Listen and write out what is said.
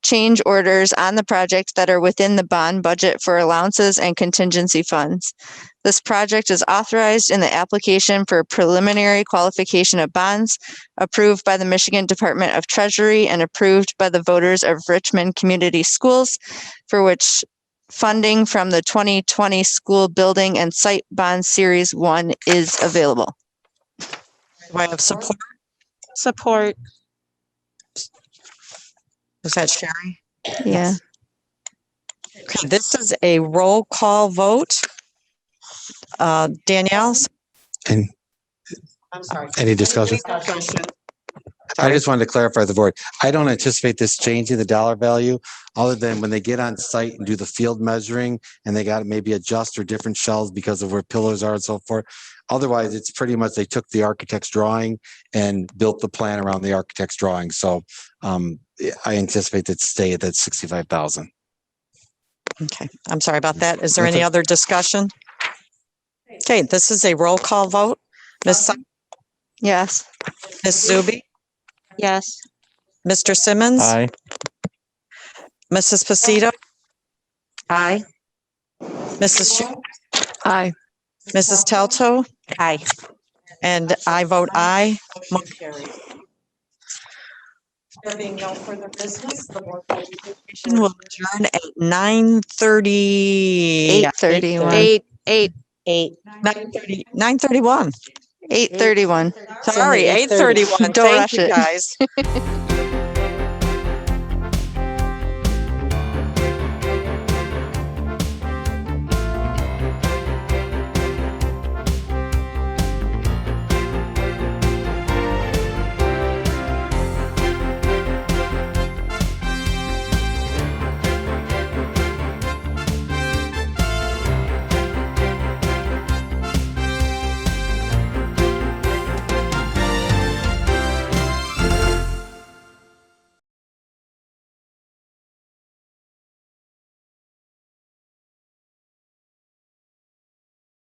change orders on the project that are within the bond budget for allowances and contingency funds. This project is authorized in the application for preliminary qualification of bonds approved by the Michigan Department of Treasury and approved by the voters of Richmond Community Schools for which funding from the 2020 School Building and Site Bond Series 1 is available. Do I have support? Support. Was that Sherry? Yeah. Okay, this is a roll call vote. Uh, Danielle? And I'm sorry. any discussion? I just wanted to clarify the board. I don't anticipate this changing the dollar value other than when they get on site and do the field measuring and they got maybe adjust or different shelves because of where pillars are and so forth. Otherwise, it's pretty much they took the architect's drawing and built the plan around the architect's drawing. So um, I anticipate that stay at that sixty-five thousand. Okay, I'm sorry about that. Is there any Nothing. other discussion? Okay, this is a roll call vote. Ms. Su- Yes. Ms. Zuby, Yes. Mr. Simmons, Mrs. Pacito, Aye. Mrs. Sh- Aye. Mrs. Telto, Aye. and I vote aye. Motion carries. There being no further business, the board will we will adjourn at nine thirty. 831. Eight, eight. Eight. Nine thirty, nine thirty-one. 831. Sorry, eight thirty-one. Don't Thank rush you, it. guys.